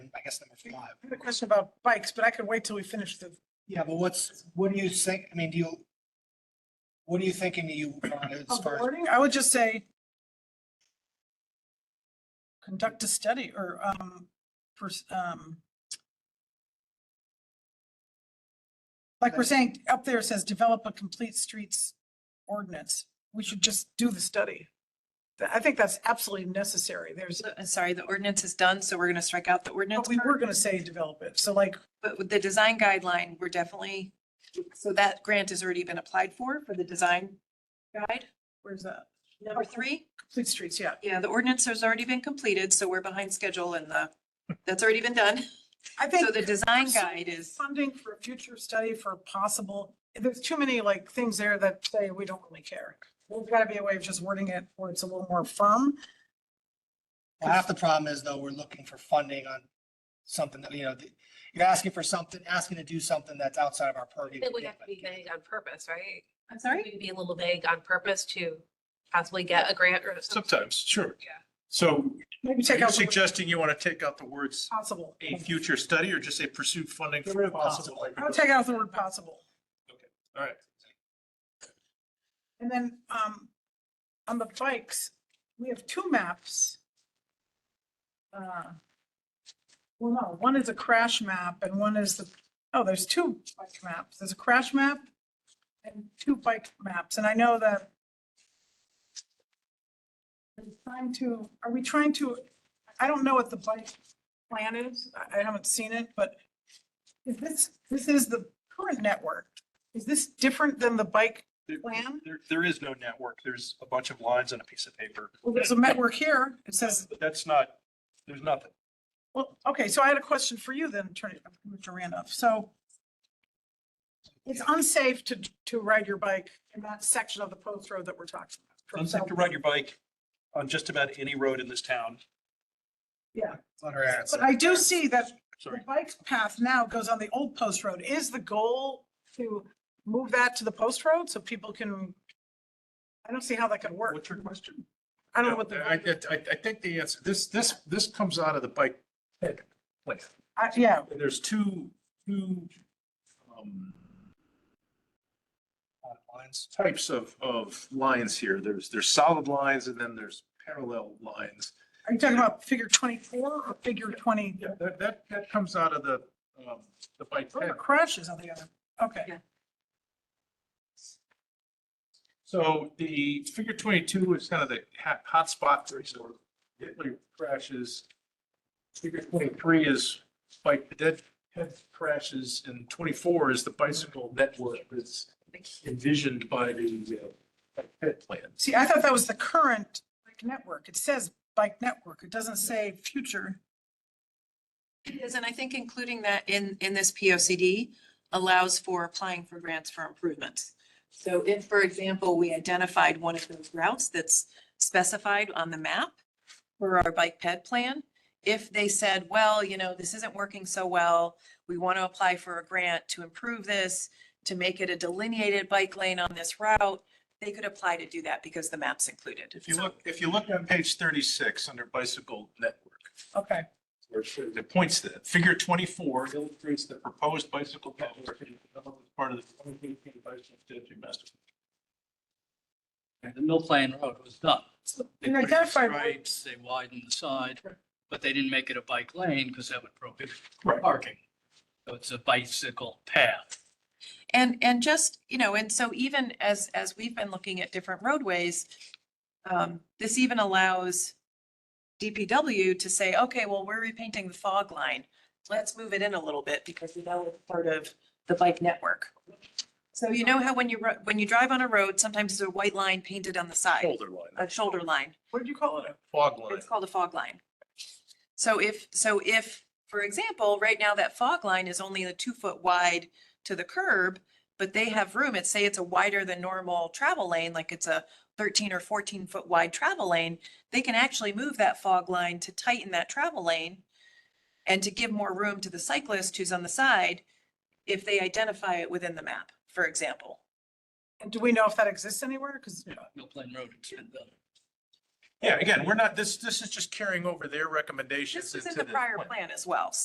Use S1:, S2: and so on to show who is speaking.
S1: guess number five.
S2: I had a question about bikes, but I can wait till we finish the,
S1: Yeah, but what's, what do you think, I mean, do you, what are you thinking you, want as
S2: of the
S1: far as,
S2: wording. I would just say conduct a study or, um, pers- um, like we're saying, up there it says develop a complete streets ordinance. We should just do the study. Th- I think that's absolutely necessary. There's,
S3: So- uh, Sorry, the ordinance is done, so we're gonna strike out the ordinance.
S2: but we were
S3: part,
S2: gonna say develop it. So like,
S3: But with the design guideline, we're definitely, so that grant has already been applied for, for the design guide.
S2: where's that?
S3: Number three,
S2: Complete streets, yeah.
S3: yeah, the ordinance has already been completed, so we're behind schedule and the, that's already been done.
S2: I think.
S3: So the design
S2: So-
S3: guide is,
S2: funding for a future study for possible, there's too many like things there that say we don't really care. There's gotta be a way of just wording it where it's a little more firm.
S1: Well, half the problem is though, we're looking for funding on something that, you know, the- you're asking for something, asking to do something that's outside of our purview.
S4: It would
S1: Yeah,
S4: have to be
S1: but-
S4: vague on purpose, right?
S3: I'm sorry?
S4: We'd be a little vague on purpose to possibly get a grant or something.
S5: Sometimes, sure.
S4: Yeah.
S5: So
S2: Maybe
S5: are
S2: take
S5: you
S2: out the word
S5: suggesting you want to take out the words
S2: possible.
S5: a future study or just say pursue funding
S1: Get
S5: for
S1: rid of
S5: possible?
S1: possible.
S2: I'll take out the word possible.
S5: All right.
S2: And then, um, on the bikes, we have two maps. Uh, Well, no, one is a crash map and one is the, oh, there's two bike maps. There's a crash map and two bike maps. And I know that I'm trying to, are we trying to, I don't know what the bike plan is. I, I haven't seen it, but is this, this is the current network. Is this different than the bike
S6: There-
S2: plan?
S6: There, there is no network. There's a bunch of lines on a piece of paper.
S2: Well, there's a network here. It says,
S6: But That's not, there's nothing.
S2: well, okay, so I had a question for you then, Attorney, Commissioner Randolph. So it's unsafe to, to ride your bike in that section of the post road that we're talking about.
S6: Unsafe to ride your bike on just about any road in this town.
S1: Clutter adds
S2: But
S1: up.
S2: I do see that the
S6: Sorry.
S2: bike path now goes on the old post road. Is the goal to move that to the post road so people can? I don't see how that could work.
S6: What's your question?
S2: I don't know
S5: No,
S2: what the,
S5: I, I, I think the answer, this, this, this comes out of the bike. plan.
S2: I- yeah,
S5: There's two, two, um,
S6: Lines.
S5: types of, of lines here. There's, there's solid lines and then there's parallel lines.
S2: are you talking about figure twenty-four or figure twenty?
S5: Yeah, that, that, that comes out of the, um, the bike
S2: Those are
S5: path.
S2: crashes on the other, okay.
S5: So the figure twenty-two is kind of the hot, hotspot for sort of vehicular crashes. Figure twenty-three is bike, dead head crashes, and twenty-four is the bicycle network that's envisioned by the, uh, bike path plan.
S2: See, I thought that was the current bike network. It says bike network. It doesn't say future.
S3: Because, and I think including that in, in this P O C D allows for applying for grants for improvements. So if, for example, we identified one of those routes that's specified on the map for our bike ped plan, if they said, well, you know, this isn't working so well, we want to apply for a grant to improve this, to make it a delineated bike lane on this route, they could apply to do that because the map's included.
S5: If you look, if you look on page thirty-six under bicycle network,
S2: Okay.
S5: where it shows- it points to that. Figure 24 illustrates the proposed bicycle network to be developed as part of the 2018 bicycle strategy master.
S7: And the Mill Plain Road was done. They
S2: And
S7: put in
S2: identify
S7: stripes, They widened the side, but they didn't make it a bike lane because that would prohibit
S5: Right.
S7: parking. So it's a bicycle path.
S3: And, and just, you know, and so even as, as we've been looking at different roadways, um, this even allows DPW to say, okay, well, we're repainting the fog line. Let's move it in a little bit because we know it's part of the bike network. So you know how when you, ro- when you drive on a road, sometimes there's a white line painted on the side,
S5: Shoulder line,
S3: a shoulder line.
S2: What did you call it?
S5: fog line.
S3: It's called a fog line. So if, so if, for example, right now that fog line is only a two foot wide to the curb, but they have room, it's say it's a wider than normal travel lane, like it's a thirteen or fourteen foot wide travel lane, they can actually move that fog line to tighten that travel lane and to give more room to the cyclist who's on the side if they identify it within the map, for example.
S2: And do we know if that exists anywhere? Because
S7: Mill Plain Road has been done.
S5: Yeah, again, we're not, this, this is just carrying over their recommendations.
S3: This was in
S5: into
S3: the prior
S5: plan.
S3: plan as well,